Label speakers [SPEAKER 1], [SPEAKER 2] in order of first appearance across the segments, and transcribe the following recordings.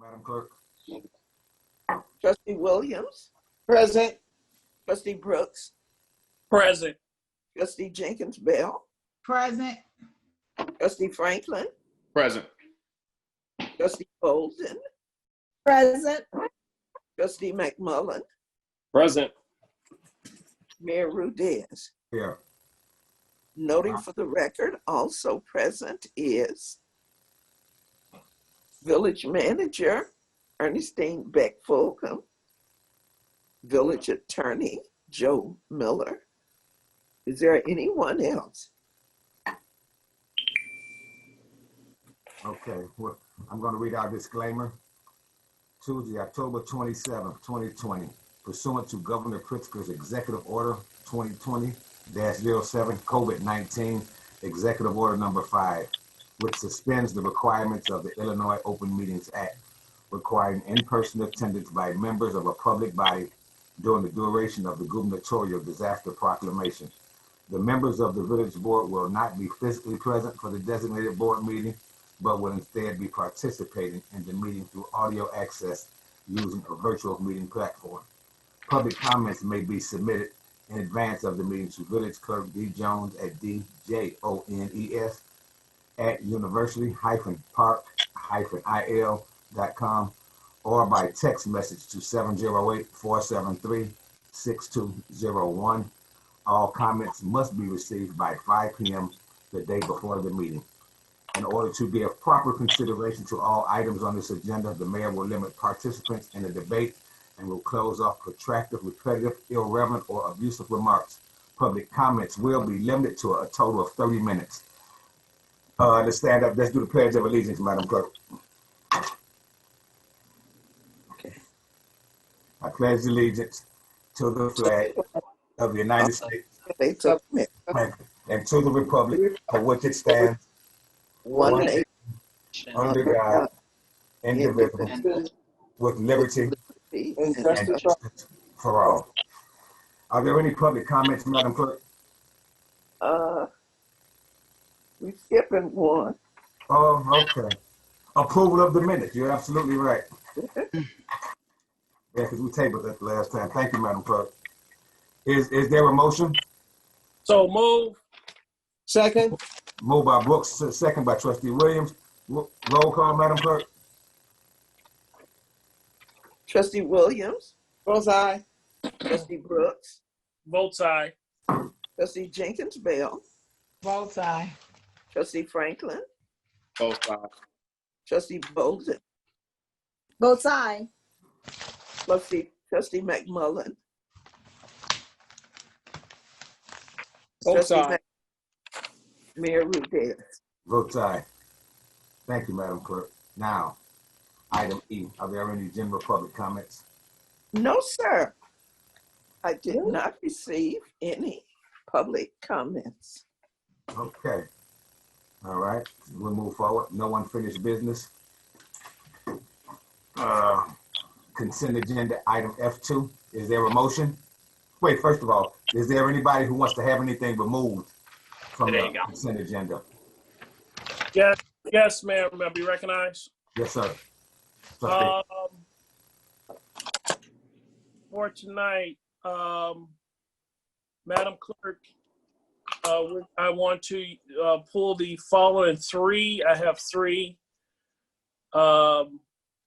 [SPEAKER 1] Madam Clerk?
[SPEAKER 2] Trustee Williams,
[SPEAKER 3] Present.
[SPEAKER 2] trustee Brooks,
[SPEAKER 4] Present.
[SPEAKER 2] trustee Jenkins Bell,
[SPEAKER 5] Present.
[SPEAKER 2] trustee Franklin,
[SPEAKER 4] Present.
[SPEAKER 2] trustee Bolden,
[SPEAKER 6] Present.
[SPEAKER 2] trustee McMullen,
[SPEAKER 4] Present.
[SPEAKER 2] Mayor Rudez.
[SPEAKER 1] Here.
[SPEAKER 2] Noting for the record, also present is Village Manager Ernestine Beck Fulcom, Village Attorney Joe Miller. Is there anyone else?
[SPEAKER 1] Okay, well, I'm gonna read our disclaimer. Tuesday, October twenty-seventh, twenty twenty, pursuant to Governor Pritzker's Executive Order twenty twenty 7 COVID nineteen, Executive Order Number Five, which suspends the requirements of the Illinois Open Meetings Act, requiring in-person attendance by members of a public body during the duration of the gubernatorial disaster proclamation. The members of the village board will not be physically present for the designated board meeting but will instead be participating in the meeting through audio access using a virtual meeting platform. Public comments may be submitted in advance of the meeting to Village Clerk D Jones at D-J-O-N-E-S E at university-park-il dot com or by text message to 708-473-6201. All comments must be received by 5 p.m. the day before the meeting. In order to give proper consideration to all items on this agenda, the mayor will limit participants in the debate and will close off protracted, repetitive, irrelevant, or abusive remarks. Public comments will be limited to a total of 30 minutes. Uh, let's stand up. Let's do the pledge of allegiance, Madam Clerk.
[SPEAKER 2] Okay.
[SPEAKER 1] I pledge allegiance to the flag of the United States
[SPEAKER 2] They took me.
[SPEAKER 1] and to the republic for which it stands,
[SPEAKER 2] One nation
[SPEAKER 1] under God, indivisible, with liberty
[SPEAKER 2] and
[SPEAKER 3] And
[SPEAKER 2] justice
[SPEAKER 1] and justice for all. Are there any public comments, Madam Clerk?
[SPEAKER 2] Uh, we skipping one.
[SPEAKER 1] Oh, okay. Approval of the minutes, you're absolutely right. Yeah, because we tabled that the last time. Thank you, Madam Clerk. Is, is there a motion?
[SPEAKER 4] So move.
[SPEAKER 3] Second.
[SPEAKER 1] Moved by Brooks, second by trustee Williams. Ro- Roll call, Madam Clerk?
[SPEAKER 2] Trustee Williams,
[SPEAKER 3] Both aye.
[SPEAKER 2] trustee Brooks,
[SPEAKER 4] Votes aye.
[SPEAKER 2] trustee Jenkins Bell,
[SPEAKER 5] Both aye.
[SPEAKER 2] trustee Franklin,
[SPEAKER 4] Votes aye.
[SPEAKER 2] trustee Bolden,
[SPEAKER 6] Both sides.
[SPEAKER 2] trustee, trustee McMullen.
[SPEAKER 4] Votes
[SPEAKER 2] trustee
[SPEAKER 4] aye.
[SPEAKER 2] Mc- Mayor Rudez.
[SPEAKER 1] Votes aye. Thank you, Madam Clerk. Now, item E, are there any general public comments?
[SPEAKER 2] No, sir. I did not receive any public comments.
[SPEAKER 1] Okay. All right, we'll move forward. No unfinished business. Uh, Consent agenda, item F2. Is there a motion? Wait, first of all, is there anybody who wants to have anything removed from
[SPEAKER 4] There you
[SPEAKER 1] the
[SPEAKER 4] go.
[SPEAKER 1] consent agenda?
[SPEAKER 4] Yes, yes, ma'am. May I be recognized?
[SPEAKER 1] Yes, sir. Trustee,
[SPEAKER 4] Um, for tonight, um, Madam Clerk, uh, we- I want to, uh, pull the following three. I have three. Um,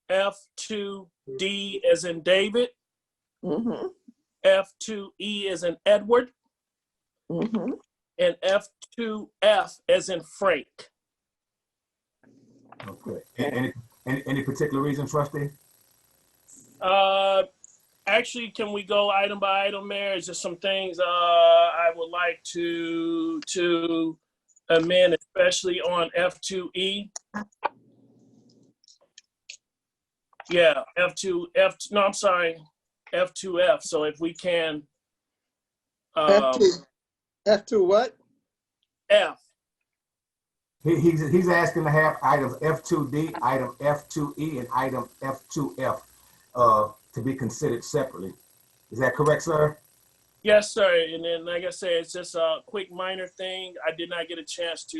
[SPEAKER 4] F two D as in David,
[SPEAKER 2] Mm-hmm,
[SPEAKER 4] F two E as in Edward,
[SPEAKER 2] mm-hmm.
[SPEAKER 4] and F2F as in Frank.
[SPEAKER 1] Okay. A- Any, any, any particular reason, trustee?
[SPEAKER 4] Uh, actually, can we go item by item, Mayor? Is there some things uh, I would like to to amend, especially on E? F2E? Yeah, F2, F, no, I'm sorry, F2F. So if we can, um,
[SPEAKER 3] F two. F two what?
[SPEAKER 4] F,
[SPEAKER 1] He, he's, he's asking to have items F2D, item F2E, and item F2F uh, to be considered separately. Is that correct, sir?
[SPEAKER 4] yes, sir. And then, like I said, it's just a quick minor thing. I did not get a chance to